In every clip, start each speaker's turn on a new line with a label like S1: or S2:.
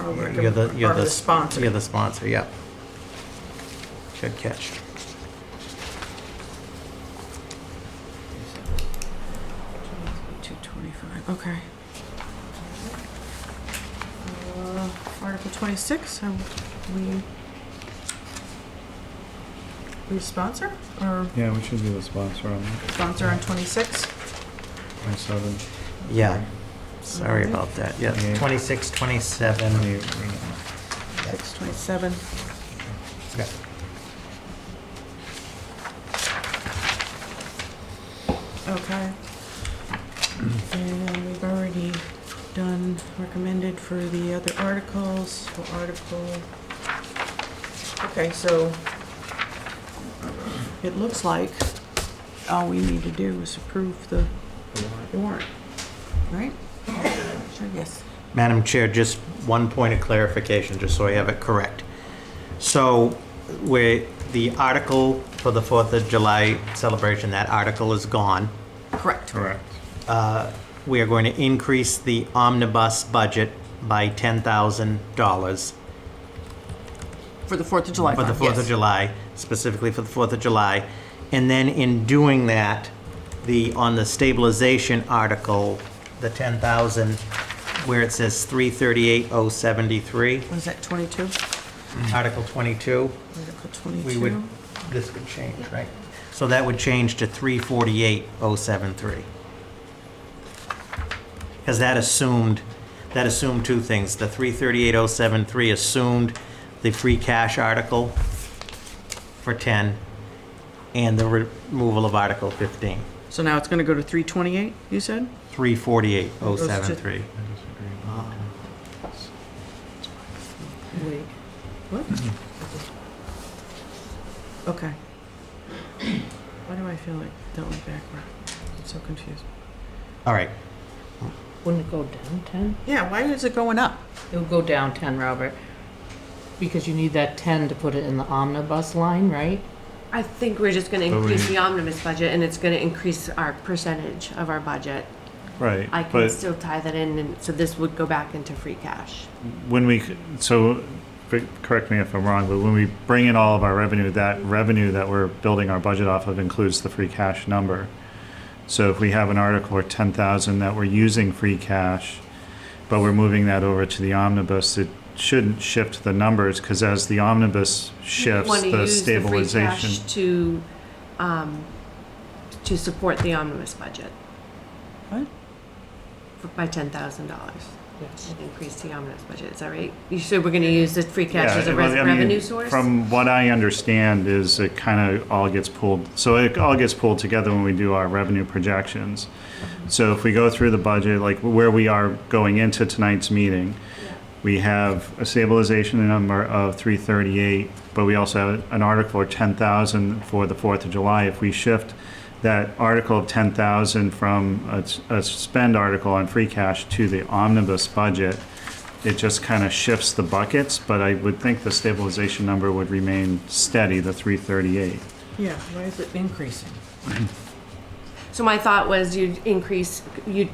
S1: Or we're
S2: You're the,
S1: gonna-
S2: you're
S1: or
S2: the.
S1: the
S2: You're
S1: sponsor.
S2: the sponsor, yep. Good catch.
S1: Two twenty-five, okay. Uh, Article twenty-six, um, we, we sponsor, or
S3: Yeah, we should be the sponsor on that.
S1: sponsor on twenty-six?
S3: Twenty-seven.
S2: Yeah, sorry about that, yeah.
S3: Yeah.
S2: 26, 27.
S1: Six twenty-seven.
S2: Okay.
S1: Okay. And then we've already done recommended for the other articles, for article. Okay, so it looks like all we need to do is approve the the warrant, right? Sure, yes.
S2: Madam Chair, just one point of clarification, just so I have it correct. So where the article for the 4th of July celebration, that article is gone.
S1: Correct.
S3: Correct.
S2: Uh, We are going to increase the omnibus budget by $10,000
S1: For the Fourth of July
S2: for the Fourth of July, specifically for the Fourth of July. And then in doing that, the, on the stabilization article, the ten thousand, where it says three thirty-eight oh seventy-three,
S1: Was that twenty-two? Mm-hmm.
S2: Article twenty-two,
S1: Article
S2: we would,
S1: twenty-two?
S2: this would change, right? So that would change to three forty-eight oh seven-three. Because that assumed, that assumed two things. The three thirty-eight oh seven-three assumed the free cash article for ten and the re- removal of Article fifteen.
S1: So now it's gonna go to three twenty-eight, you said?
S2: Three forty-eight oh seven-three.
S3: I disagree.
S1: Wait, what? Okay. Why do I feel like that went backward? I'm so confused.
S2: All right,
S4: Wouldn't it go down 10?
S1: Yeah, why is it going up?
S4: It would go down 10, Robert, because you need that 10 to put it in the omnibus line, right?
S5: I think we're just gonna
S3: But we-
S5: increase the omnibus budget and it's gonna increase our percentage of our budget.
S3: Right,
S5: I can
S3: but
S5: still tie that in and, so this would go back into free cash.
S3: when we, c- so, fi- correct me if I'm wrong, but when we bring in all of our revenue, that revenue that we're building our budget off of includes the free cash number. So if we have an article or ten thousand that we're using free cash, but we're moving that over to the omnibus, it shouldn't shift the numbers, because as the omnibus shifts,
S5: Wanna
S3: the
S5: use free
S3: stabilization.
S5: cash To, um, to support the omnibus budget.
S1: What?
S5: For- By ten thousand dollars.
S4: Yes.
S5: Increase the omnibus budget, is that right? You said we're gonna use the free cash
S3: Yeah,
S5: as a
S3: it
S5: res-
S3: was- I mean,
S5: revenue source?
S3: From what I understand is it kind of all gets pulled, so it all gets pulled together when we do our revenue projections. So if we go through the budget, like where we are going into tonight's meeting, we have a stabilization number of three thirty-eight, but we also have an article of ten thousand for the Fourth of July. If we shift that article of ten thousand from a, s- a spend article on free cash to the omnibus budget, it just kind of shifts the buckets, but I would think the stabilization number would remain steady, the three thirty-eight.
S1: Yeah, why is it increasing?
S5: So my thought was you'd increase, you,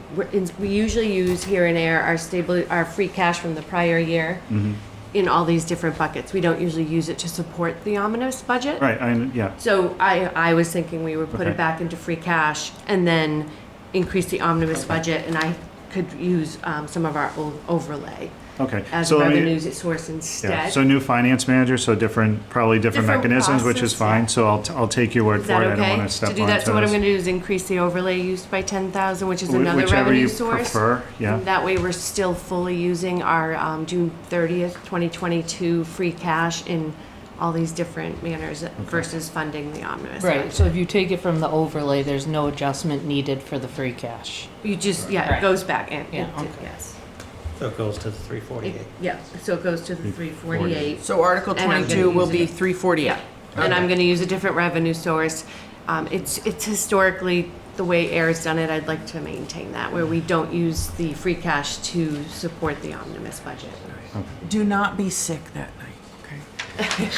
S5: we usually use here and there our stable, our free cash from the prior year
S3: Mm-hmm.
S5: in all these different buckets. We don't usually use it to support the omnibus budget.
S3: Right, I, yeah,
S5: So I, I was thinking we would put
S3: Okay.
S5: it back into free cash and then increase the omnibus budget and I could use, um, some of our o- overlay
S3: okay.
S5: as
S3: So
S5: a
S3: let me-
S5: revenue source
S3: Yeah,
S5: instead.
S3: so new finance manager, so different, probably different
S5: Different
S3: mechanisms, which is
S5: process,
S3: fine,
S5: yeah.
S3: so I'll, t- I'll take your word
S5: Is
S3: for it,
S5: that
S3: I don't
S5: okay?
S3: wanna step
S5: To
S3: on
S5: do that, so what I'm gonna
S3: toes.
S5: do is increase the overlay use by ten thousand, which is
S3: Wh-
S5: another revenue source.
S3: Whichever you prefer,
S5: And
S3: yeah,
S5: That way, we're still fully using our um, June 30th, 2022 free cash in all these different manners versus funding the omnibus.
S4: Right,
S5: fund.
S4: so if you take it from the overlay, there's no adjustment needed for the free cash.
S5: You just, yeah, it
S4: Right.
S5: goes back in.
S4: Yeah,
S5: It-
S4: okay.
S5: Yes.
S2: so it goes to the three forty-eight.
S5: It- Yeah, so it goes to the 348.
S1: So Article
S5: And I'm gonna
S1: twenty-two will
S5: use
S1: be
S5: it.
S1: three forty-eight.
S5: And I'm going to use a different revenue source. Um, It's, it's historically the way Air's done it. I'd like to maintain that, where we don't use the free cash to support the omnibus budget.
S1: Do not be sick that night, okay?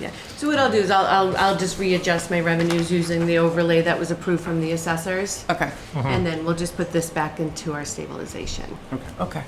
S5: Yeah, so what I'll do is I'll, I'll, I'll just readjust my revenues using the overlay that was approved from the assessors.
S1: Okay,
S5: And then we'll just put this back into our stabilization.
S1: okay.